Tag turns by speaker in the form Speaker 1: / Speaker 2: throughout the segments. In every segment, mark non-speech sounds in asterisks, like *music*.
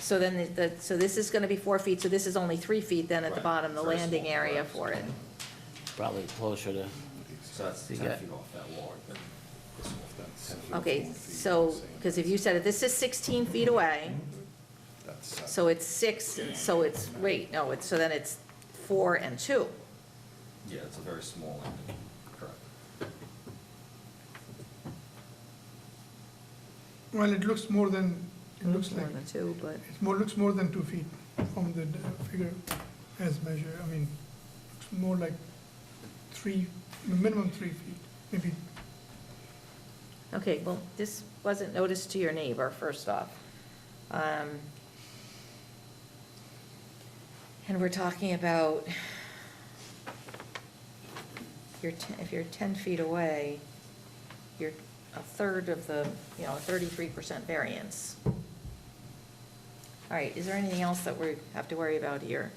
Speaker 1: So then, the- the, so this is gonna be four feet, so this is only three feet then at the
Speaker 2: Right,
Speaker 1: bottom, the
Speaker 2: very
Speaker 1: landing
Speaker 2: small,
Speaker 1: area
Speaker 2: right.
Speaker 1: for it.
Speaker 3: probably closer to,
Speaker 2: So that's
Speaker 3: You
Speaker 2: ten
Speaker 3: got-
Speaker 2: feet off that wall, then this wall, that's.
Speaker 1: Okay, so, because if you said it, this is sixteen feet away, so it's six, so it's, wait, no, it's, so then it's four and two.
Speaker 2: Yeah, it's a very small landing, correct.
Speaker 4: Well, it looks more than, it looks
Speaker 1: More
Speaker 4: like,
Speaker 1: than two, but,
Speaker 4: it more, looks more than two feet from the d- figure as measured. I mean, it's more like three, minimum three feet, maybe.
Speaker 1: okay, well, this wasn't noticed to your neighbor, first off. Um, And we're talking about, you're, te- if you're ten feet away, you're a third of the, you know, thirty-three percent variance. All right, is there anything else that we have to worry about here?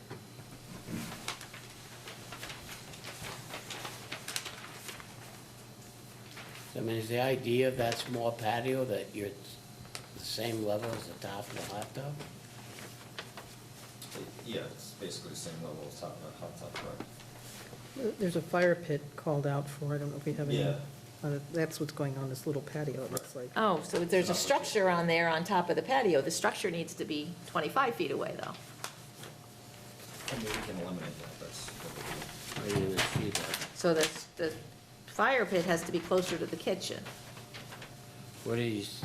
Speaker 3: I mean, is the idea of that small patio that you're the same level as the top of the hot tub?
Speaker 2: It- Yeah, it's basically the same level as top, uh, hot top, correct.
Speaker 5: There's a fire pit called out for, I don't know if we have any.
Speaker 2: Yeah.
Speaker 5: uh, That's what's going on, this little patio, it looks like.
Speaker 1: Oh, so there's a structure on there on top of the patio. The structure needs to be 25 feet away, though.
Speaker 2: I mean, we can eliminate that, that's what we do.
Speaker 3: Maybe the street level.
Speaker 1: So the, the fire pit has to be closer to the kitchen.
Speaker 3: What is,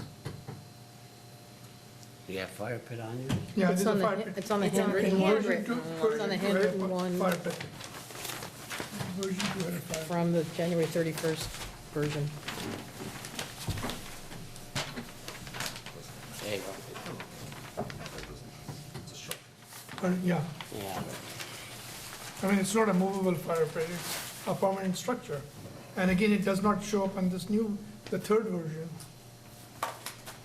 Speaker 3: you have fire pit on you?
Speaker 4: Yeah, there's
Speaker 5: It's
Speaker 4: a
Speaker 5: on the,
Speaker 4: fire
Speaker 5: hand-
Speaker 4: pit.
Speaker 5: it's on the
Speaker 1: It's on the
Speaker 5: handwritten
Speaker 1: hand-
Speaker 5: one
Speaker 4: Version two-
Speaker 1: handwritten
Speaker 5: one. It's
Speaker 4: version
Speaker 5: on the
Speaker 4: two had a
Speaker 5: handwritten
Speaker 4: fi-
Speaker 5: one.
Speaker 4: Fire pit. Version two had a fire pit.
Speaker 5: from the January 31st version.
Speaker 3: There you go.
Speaker 2: It's a structure.
Speaker 4: But, yeah,
Speaker 3: Yeah,
Speaker 4: I mean, it's not a movable fire pit, it's a permanent structure. And again, it does not show up on this new, the third version. *laughs*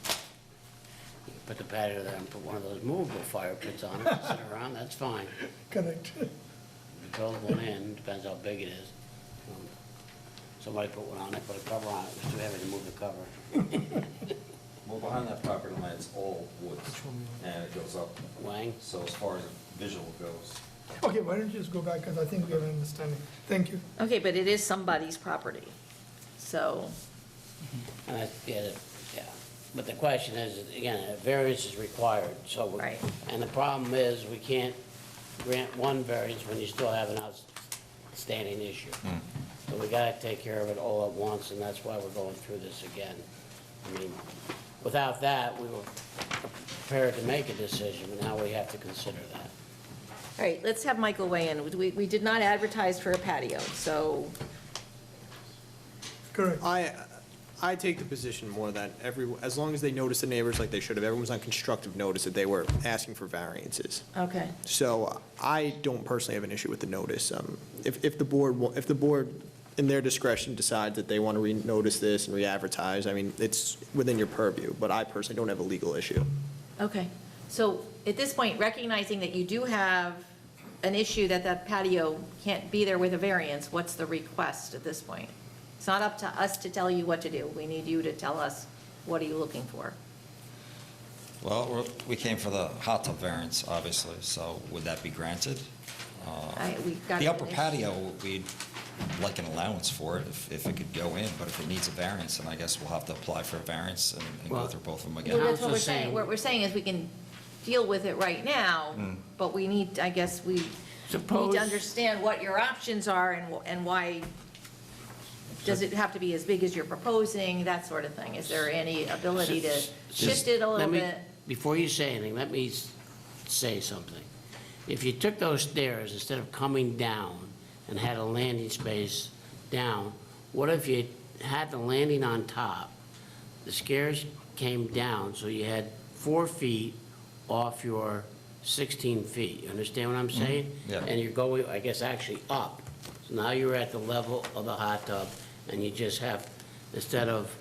Speaker 3: You put the patio there and put one of those movable fire pits on it, *laughs* sit around, that's fine.
Speaker 4: Correct. *laughs*
Speaker 3: You build one in, depends how big it is. Um, Somebody put one on it, put a cover on it, it was too heavy to move the cover.
Speaker 2: Well, behind that property line, it's all woods, and it goes up.
Speaker 3: Wang?
Speaker 2: So as far as visual goes,
Speaker 4: Okay, why don't you just go back, because I think we have an understanding. Thank you.
Speaker 1: Okay, but it is somebody's property. So,
Speaker 3: And I get it, yeah. But the question is, again, a variance is required, so. we-
Speaker 1: Right.
Speaker 3: And the problem is, we can't grant one variance when you still have an outstanding issue. So we gotta take care of it all at once, and that's why we're going through this again. I mean, without that, we were prepared to make a decision, but now we have to consider that.
Speaker 1: all right, let's have Michael weigh in. We, we did not advertise for a patio, so,
Speaker 4: Correct.
Speaker 6: I, I take the position more that every, as long as they notice the neighbors like they should have, everyone's on constructive notice that they were asking for variances.
Speaker 1: okay.
Speaker 6: So I don't personally have an issue with the notice. Um, If, if the board, wa- if the board, in their discretion, decides that they want to re-notice this and re-advertise, I mean, it's within your purview, but I personally don't have a legal issue.
Speaker 1: Okay, so at this point, recognizing that you do have an issue that that patio can't be there with a variance, what's the request at this point? It's not up to us to tell you what to do. We need you to tell us, what are you looking for?
Speaker 7: Well, we're- we came for the hot tub variance, obviously, so would that be granted?
Speaker 1: I- we got
Speaker 7: Uh, The upper
Speaker 1: an issue.
Speaker 7: patio, we'd like an allowance for it if, if it could go in, but if it needs a variance, then I guess we'll have to apply for a variance and and go
Speaker 3: Well-
Speaker 7: through both of them
Speaker 1: Well,
Speaker 7: again.
Speaker 1: that's what we're
Speaker 3: Council's
Speaker 1: saying.
Speaker 3: saying-
Speaker 1: What we're saying is we can deal with it right now, but we need, I guess, we need
Speaker 3: Suppose-
Speaker 1: to understand what your options are and, wh- and why, does it have to be as big as you're proposing, that sort of thing? Is there any ability to shift it a
Speaker 3: Let
Speaker 1: little
Speaker 3: me-
Speaker 1: bit?
Speaker 3: Before you say anything, let me s- say something. If you took those stairs instead of coming down and had a landing space down, what if you had the landing on top, the stairs came down, so you had four feet off your 16 feet? You understand what I'm saying?
Speaker 7: Mm-hmm. yeah.
Speaker 3: And you're going, I guess, actually up. So now you're at the level of the hot tub, and you just have, instead of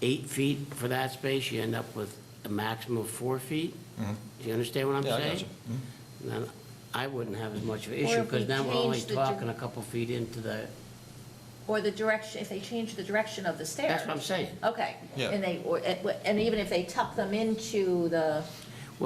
Speaker 3: eight feet for that space, you end up with a maximum of four feet? Do you understand what I'm
Speaker 7: Mm-hmm. Yeah, I Mm-hmm.
Speaker 3: saying?
Speaker 7: gotcha.
Speaker 3: Then I wouldn't have as much of an
Speaker 1: Or
Speaker 3: issue,
Speaker 1: if we
Speaker 3: because then we're only
Speaker 1: change the gen-
Speaker 3: talking a couple feet into the,
Speaker 1: Or the direction, if they change the direction of the stairs?
Speaker 3: that's what I'm saying.
Speaker 1: Okay.
Speaker 7: Yeah.
Speaker 1: And they, or- and even if they tuck them into the